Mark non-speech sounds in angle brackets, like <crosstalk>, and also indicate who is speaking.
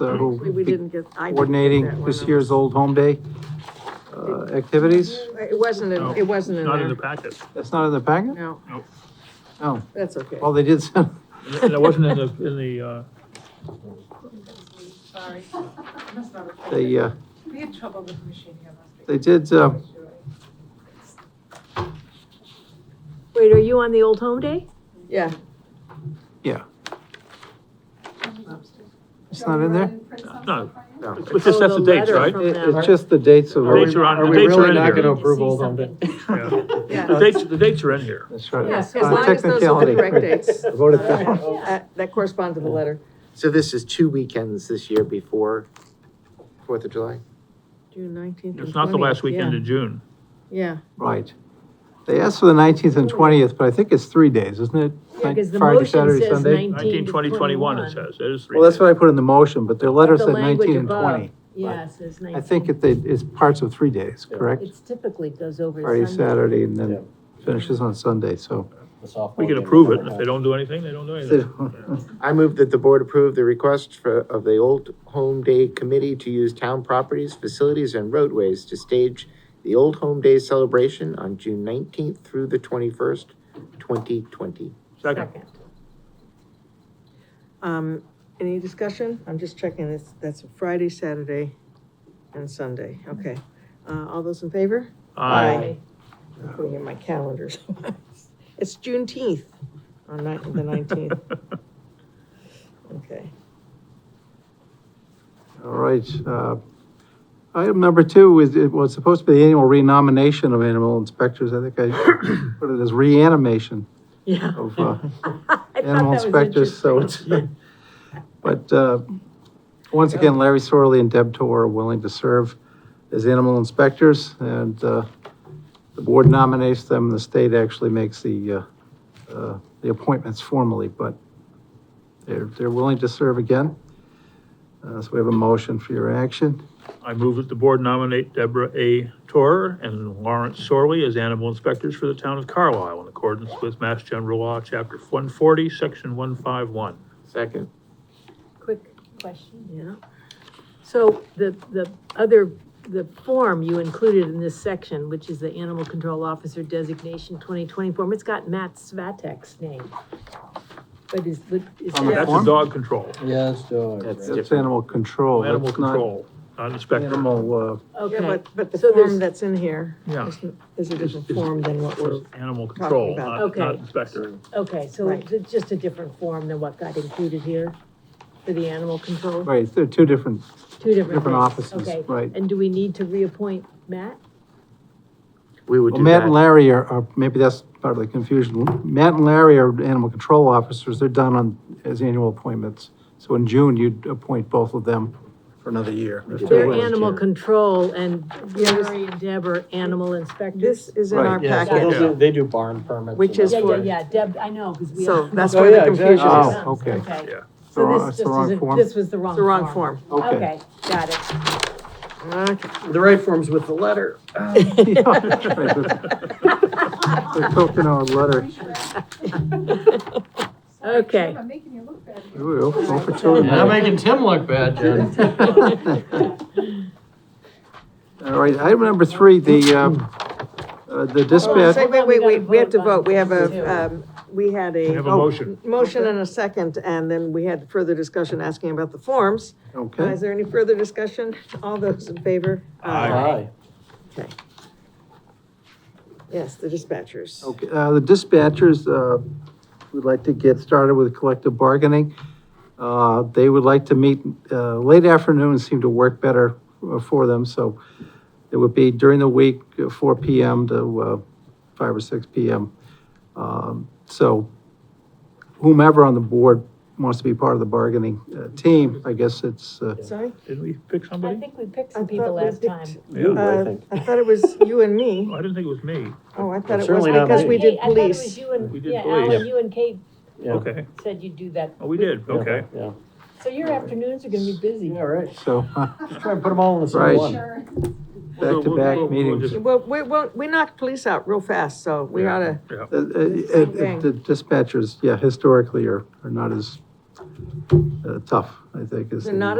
Speaker 1: uh,
Speaker 2: Mm-hmm.
Speaker 1: who
Speaker 3: We, we didn't get, I didn't get that
Speaker 1: coordinating
Speaker 3: one,
Speaker 1: this
Speaker 3: no.
Speaker 1: year's Old Home Day uh, activities.
Speaker 3: It wasn't, in- it wasn't in
Speaker 2: Not in the
Speaker 3: there,
Speaker 2: packet.
Speaker 1: That's not in the packet?
Speaker 3: no.
Speaker 2: Nope.
Speaker 1: No.
Speaker 3: That's okay.
Speaker 1: Well, they did send,
Speaker 2: And it wasn't in the, in the, uh,
Speaker 4: Sorry. I must not have-
Speaker 1: they, uh,
Speaker 4: We had trouble with the machine here last week.
Speaker 1: they did, uh,
Speaker 5: Wait, are you on the Old Home Day?
Speaker 3: Yeah,
Speaker 1: it's not in there?
Speaker 2: no,
Speaker 1: No.
Speaker 2: it's just, that's
Speaker 5: Oh,
Speaker 2: the
Speaker 5: the
Speaker 2: dates,
Speaker 5: letter
Speaker 2: right?
Speaker 5: from-
Speaker 1: It- It's just the dates of.
Speaker 2: The dates are on- the dates are in
Speaker 1: Are we really not
Speaker 2: here.
Speaker 1: gonna approve Old Home Day?
Speaker 2: Yeah.
Speaker 3: <laughs> yeah.
Speaker 2: The dates, the dates are in here.
Speaker 1: That's right. Uh,
Speaker 3: Yes, as
Speaker 1: On
Speaker 3: long as those are
Speaker 1: technicality.
Speaker 3: the
Speaker 1: <laughs>
Speaker 3: correct dates.
Speaker 1: Voted down.
Speaker 3: Uh, That correspond to the letter.
Speaker 6: So this is two weekends this year before Fourth of July?
Speaker 3: June nineteenth
Speaker 2: It's not the last weekend of June.
Speaker 3: Yeah,
Speaker 1: Right. They asked for the nineteenth and twentieth, but I think it's three days, isn't it?
Speaker 5: Yeah, because the
Speaker 1: Friday,
Speaker 5: motion
Speaker 1: Saturday,
Speaker 5: says
Speaker 1: Sunday?
Speaker 5: nineteen
Speaker 2: Nineteen,
Speaker 5: to
Speaker 2: twenty, twenty-one, it
Speaker 5: twenty-one.
Speaker 2: says. It is three
Speaker 1: Well, that's
Speaker 2: days.
Speaker 1: what I put in the motion, but their letter
Speaker 5: The
Speaker 1: said
Speaker 5: language
Speaker 1: nineteen and
Speaker 5: above.
Speaker 1: twenty.
Speaker 5: Yeah, it says nineteen.
Speaker 1: I think it, they- it's parts of three days, correct?
Speaker 5: It's typically goes
Speaker 1: Friday,
Speaker 5: over Sunday.
Speaker 1: Saturday, and
Speaker 7: Yeah.
Speaker 1: then finishes on Sunday, so.
Speaker 2: We can approve it. If they don't do anything, they don't
Speaker 1: <laughs>
Speaker 2: do anything.
Speaker 6: I move that the board approve the request for, of the Old Home Day Committee to use town properties, facilities, and roadways to stage the Old Home Day celebration on June nineteenth through the twenty-first, twenty twenty.
Speaker 2: Second,
Speaker 3: um, any discussion? I'm just checking this, that's Friday, Saturday, and Sunday, okay. Uh, all those in favor?
Speaker 2: aye.
Speaker 3: I'm Putting in my
Speaker 5: <laughs>
Speaker 3: calendar. It's Juneteenth on ni- the nineteenth.
Speaker 1: <laughs>
Speaker 3: Okay.
Speaker 1: All right, uh, item number two is, it was supposed to be the annual renomination of animal inspectors, I think I <coughs> put it as reanimation
Speaker 5: Yeah.
Speaker 1: of, uh,
Speaker 5: <laughs> I thought
Speaker 1: animal
Speaker 5: that was
Speaker 1: inspectors, so it's, <laughs>
Speaker 5: interesting.
Speaker 1: but, uh, once again, Larry Sorley and Deb Tor are willing to serve as animal inspectors, and, uh, the board nominates them, the state actually makes the, uh, uh, the appointments formally, but they're, they're willing to serve again. Uh, so we have a motion for your action.
Speaker 2: I move that the board nominate Deborah A. Torr and Lawrence Sorley as animal inspectors for the town of Carlisle in accordance with Mass General Law, Chapter one forty, Section one five one.
Speaker 6: Second.
Speaker 5: Quick question.
Speaker 3: Yeah.
Speaker 5: So the, the other, the form you included in this section, which is the Animal Control Officer Designation twenty twenty form, it's got Matt Svatek's name. But is, but is
Speaker 1: On the
Speaker 5: that-
Speaker 2: That's a
Speaker 1: form?
Speaker 2: dog control,
Speaker 7: Yes, George.
Speaker 6: That's
Speaker 7: right.
Speaker 1: It's animal control.
Speaker 2: animal
Speaker 1: Oh, that's not
Speaker 2: control, not inspector.
Speaker 1: Animal, uh,
Speaker 3: Yeah,
Speaker 5: Okay,
Speaker 3: but, but the
Speaker 5: So there's-
Speaker 3: form that's in here
Speaker 2: Yeah.
Speaker 3: is- is a
Speaker 2: It's-
Speaker 3: different
Speaker 2: it's-
Speaker 3: form than what we're,
Speaker 2: It's Animal control, not,
Speaker 3: about.
Speaker 2: not
Speaker 5: Okay.
Speaker 2: inspector.
Speaker 5: okay, so
Speaker 3: Right.
Speaker 5: it's just a different form than what got included here for the animal
Speaker 1: uh,
Speaker 5: control?
Speaker 1: right, they're two different,
Speaker 5: Two different
Speaker 1: different
Speaker 5: things,
Speaker 1: offices,
Speaker 5: okay.
Speaker 1: right.
Speaker 5: And do we need to reappoint Matt?
Speaker 6: We would
Speaker 1: Well,
Speaker 6: do
Speaker 1: Matt and
Speaker 6: that.
Speaker 1: Larry are, are, maybe that's part of the confusion. Matt and Larry are animal control officers, they're done on, as annual appointments. So in June, you'd appoint both of them for another year. if
Speaker 6: They're
Speaker 1: they
Speaker 5: They're
Speaker 1: wish.
Speaker 5: animal control and
Speaker 3: Yeah, this-
Speaker 5: Larry and Deb are animal inspectors?
Speaker 3: this is in
Speaker 1: Right,
Speaker 3: our
Speaker 7: Yeah, so
Speaker 3: packet.
Speaker 7: those are- They do barn permits.
Speaker 3: Which
Speaker 7: and
Speaker 3: is
Speaker 5: Yeah,
Speaker 7: that.
Speaker 5: yeah,
Speaker 3: for-
Speaker 5: yeah, Deb, I know, because we.
Speaker 3: So
Speaker 5: all-
Speaker 3: that's
Speaker 7: Oh,
Speaker 3: where the
Speaker 7: yeah, exactly.
Speaker 3: confusion is.
Speaker 1: Oh, okay.
Speaker 2: Yeah.
Speaker 1: The wrong- it's
Speaker 5: So this
Speaker 1: the
Speaker 5: just
Speaker 1: wrong
Speaker 5: isn't,
Speaker 1: form.
Speaker 5: this was the wrong.
Speaker 3: It's the wrong form.
Speaker 1: Okay.
Speaker 5: Okay, got it.
Speaker 3: Okay.
Speaker 7: The right form's with the <laughs> letter.
Speaker 1: <laughs> Yeah, right, but- They're talking our letter.
Speaker 4: Sorry, Jim,
Speaker 5: Okay.
Speaker 4: I'm making you look bad. again.
Speaker 1: Ooh, oh, for two of
Speaker 7: Not
Speaker 1: them.
Speaker 7: making Tim look bad, Jen. <laughs>
Speaker 1: All right, item number three, the, um, uh, the dispatch.
Speaker 3: Say, Oh, Wait, wait, wait, we have to
Speaker 5: Hold on,
Speaker 3: vote,
Speaker 5: we
Speaker 3: we have
Speaker 5: gotta
Speaker 3: a, um, we had
Speaker 2: We have a
Speaker 3: a oh,
Speaker 2: motion.
Speaker 3: motion and a second, and then we had further discussion asking about the forms. Uh,
Speaker 1: Okay,
Speaker 3: Is there any further discussion? All those in favor? Uh,
Speaker 7: Aye.
Speaker 3: Yes, the dispatchers.
Speaker 7: Oh,
Speaker 1: okay, uh, the dispatchers, uh, would like to get started with collective bargaining. Uh, they would like to meet, uh, late afternoons seem to work better uh, for them, so it would be during the week, uh, four PM to, uh, five or six PM. Um, so whomever on the board wants to be part of the bargaining, uh, team, I guess it's, uh,
Speaker 3: Sorry?
Speaker 2: Didn't we pick
Speaker 5: <laughs> I
Speaker 2: somebody?
Speaker 5: think we picked
Speaker 3: I
Speaker 5: some people
Speaker 3: thought we
Speaker 5: last time.
Speaker 3: picked-
Speaker 7: You, I
Speaker 3: uh,
Speaker 7: think.
Speaker 3: I thought it was you and me.
Speaker 2: Oh, I didn't think it was me.
Speaker 3: Oh, I thought it was
Speaker 7: Certainly not
Speaker 3: because
Speaker 7: me.
Speaker 3: we
Speaker 5: Hey,
Speaker 3: did
Speaker 5: I thought it was
Speaker 3: police.
Speaker 5: you and-
Speaker 2: We did
Speaker 5: yeah,
Speaker 2: police.
Speaker 5: Alan, you and Kate
Speaker 7: Yeah.
Speaker 2: Okay.
Speaker 5: said you'd do that.
Speaker 2: Oh, we did, okay.
Speaker 7: Yeah,
Speaker 5: So your afternoons are gonna be busy.
Speaker 7: yeah, right.
Speaker 1: so, uh,
Speaker 7: Just try and put them all in the same
Speaker 1: Right.
Speaker 7: one.
Speaker 4: Sure.
Speaker 2: We'll- we'll-
Speaker 1: Back-to-back
Speaker 2: we'll- we'll
Speaker 1: meetings.
Speaker 2: just-
Speaker 3: Well, we, well, we knocked police out real fast, so we
Speaker 2: Yeah.
Speaker 3: oughta,
Speaker 2: Yeah.
Speaker 1: Uh, uh,
Speaker 3: thing.
Speaker 1: uh, The dispatchers, yeah, historically are, are not as uh, tough, I think, as.
Speaker 3: They're
Speaker 1: the-
Speaker 3: not